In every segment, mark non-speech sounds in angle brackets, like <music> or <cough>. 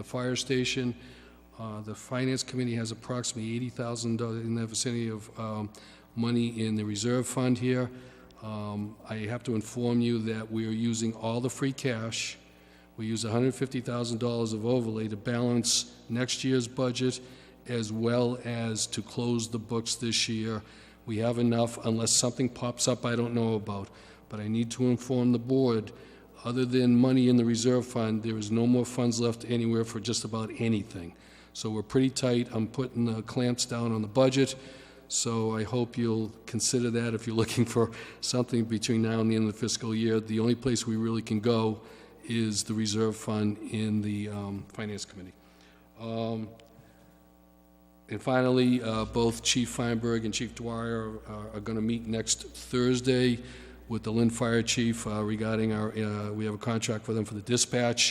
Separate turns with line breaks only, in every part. the fire station. Uh, The Finance Committee has approximately $80,000 in the vicinity of um, money in the reserve fund here. Um, I have to inform you that we are using all the free cash. We use $150,000 of overlay to balance next year's budget as well as to close the books this year. We have enough unless something pops up I don't know about. But I need to inform the board, other than money in the reserve fund, there is no more funds left anywhere for just about anything. So we're pretty tight. I'm putting the clamps down on the budget. So I hope you'll consider that if you're looking for something between now and the end of the fiscal year. The only place we really can go is the reserve fund in the um, Finance Committee. And finally, uh, both Chief Feinberg and Chief Dwyer are- are going to meet next Thursday with the Lynn Fire Chief uh, regarding our, uh, we have a contract with them for the dispatch,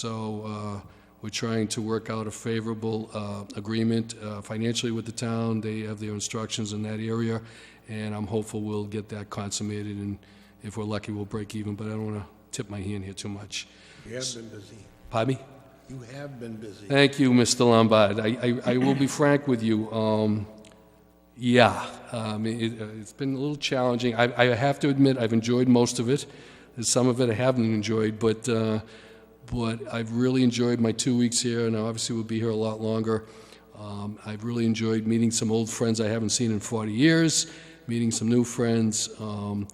so uh, we're trying to work out a favorable uh, agreement uh, financially with the town. They have their instructions in that area, and I'm hopeful we'll get that consummated, and if we're lucky, we'll break even, but I don't want to tip my hand here too much.
You have been busy.
Pardon me?
You have been busy.
Thank you, Mr. Lombard. I, I, I will be frank with you, um, yeah, um, it, uh, it's been a little challenging. I, I have to admit, I've enjoyed most of it. There's Some of it I haven't enjoyed, but, uh, but I've really enjoyed my two weeks here, and I obviously will be here a lot longer. Um, I've really enjoyed meeting some old friends I haven't seen in 40 years, meeting some new friends. Um,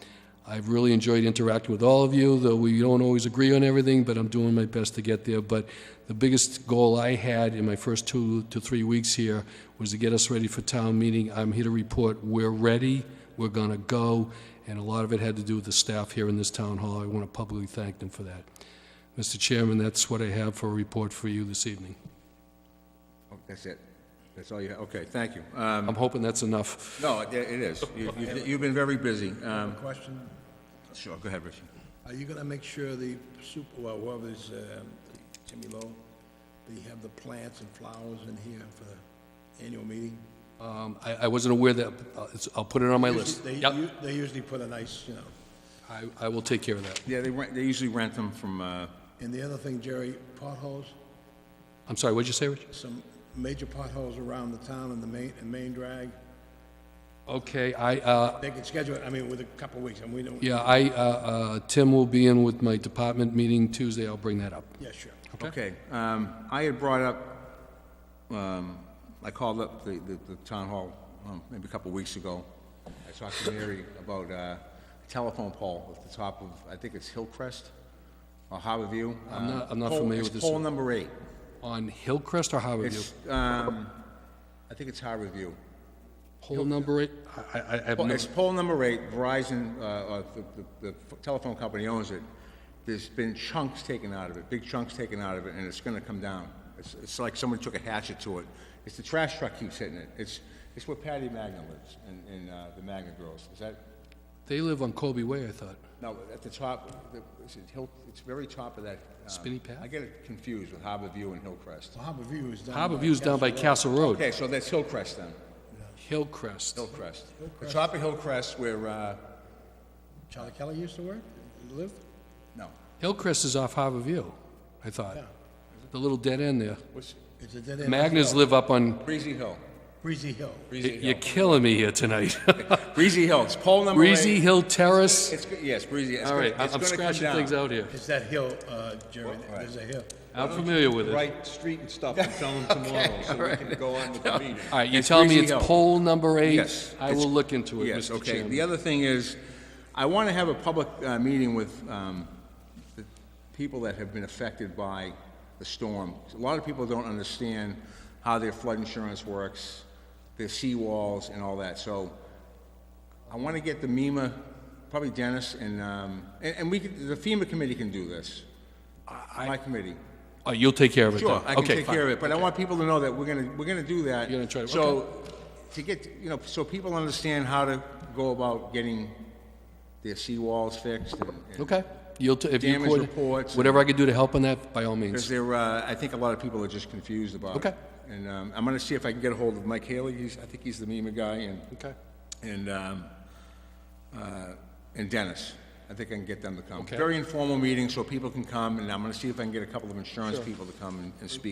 I've really enjoyed interacting with all of you, though we don't always agree on everything, but I'm doing my best to get there. But the biggest goal I had in my first two to three weeks here was to get us ready for town meeting. I'm here to report, we're ready, we're going to go, and a lot of it had to do with the staff here in this town hall. I want to publicly thank them for that. Mr. Chairman, that's what I have for a report for you this evening.
Oh, That's it. That's all you, have. okay, thank you. Um,
I'm hoping that's enough.
No, it it is. You- you- You've been very busy. Um,
Question,
Sure, go ahead, Richie.
are you gonna make sure the super, well, whoever's, um, Jimmy Lowe, they have the plants and flowers in here for the annual meeting?
Um, I I wasn't aware that, uh, it's- I'll put it on my list.
They,
Yep,
u- they usually put a nice, you know,
I- I will take care of that.
Yeah, they rent, they usually rent them from, uh,
and the other thing, Jerry, potholes,
I'm sorry, what'd you say, Rich?
some major potholes around the town and the main, and main drag.
Okay, I, uh,
They can schedule it, I mean, with a couple of weeks, and we don't,
Yeah, I, uh, uh, Tim will be in with my department meeting Tuesday, I'll bring that up.
yeah, sure.
okay. Um, I had brought up, um, I called up the, the- the town hall um, maybe a couple weeks ago. I talked to Mary about uh, a telephone pole at the top of, I think it's Hillcrest or Harborview.
I'm not- I'm not
Uh, pole-
familiar with
it's
this
pole
one.
number eight.
On Hillcrest or Harborview?
It's, um, I think it's Harborview.
Pole number eight? I, I, I have
Well,
no,
It's poll number eight, Verizon, uh, uh, the, the the telephone company owns it. There's been chunks taken out of it, big chunks taken out of it, and it's gonna come down. It's, it's like someone took a hatchet to it. It's the trash truck keeps hitting it. It's, it's where Patty Magna lives, and, and, uh, the Magna girls. Is that,
they live on Colby Way, I thought.
no, at the top, the, is it Hill, it's very top of that. um,
Spinny Path?
I get it confused with Harbor View and Hillcrest.
So Harbor View is down. by
Harborview's down by
Castle Rock.
Castle Road.
Oh, Okay, so that's Hillcrest then,
Hillcrest.
Hillcrest. The top of Hillcrest where, uh,
Charlie Kelly used to work, live?
no,
Hillcrest is off Harborview, I thought. The little dead end there.
what's,
It's a dead end.
Magnus live up on,
Breezy Hill.
Breezy Hill.
Breezy Hill.
you're killing me here tonight.
Breezy Hill, <laughs> it's poll number eight.
Breezy Hill Terrace.
It's, go- yes, Breezy. It's
All
gonna-
right, I-
it's
I'm
gonna come
scratching
down.
things out here.
It's that hill, uh, Jerry, there's a hill.
I'm familiar with it. All
right street and stuff and
<laughs>
tell them tomorrow, so we can go on with the meeting.
right, you're
It's
telling me it's
Breezy Hill.
poll number eight?
Yes,
I
it's-
will look into it,
Yes,
Mr.
okay.
Chairman.
The other thing is, I want to have a public uh, meeting with um, the people that have been affected by the storm. A lot of people don't understand how their flood insurance works, their seawalls and all that. So I want to get the MEMA, probably Dennis, and, um, and and we, could- the FEMA committee can do this. My committee.
Oh, you'll take care of it then?
Sure, I can
Okay,
take
fine.
care of it, but I want people to know that we're gonna, we're gonna do that.
You're gonna try to-
So, to get, you know, so people understand how to go about getting their seawalls fixed and. and-
Okay. You'll, t- if you
Damage
could,
reports and-
whatever I could do to help on that, by all
Because
means.
there, uh, I think a lot of people are just confused about it.
Okay.
And, um, I'm gonna see if I can get a hold of Mike Haley, he's, I think he's the MEMA guy, and,
Okay.
and, um, uh, and Dennis. I think I can get them to come.
Okay.
Very informal meeting, so people can come, and I'm gonna see if I can get a couple of insurance people to come and, and speak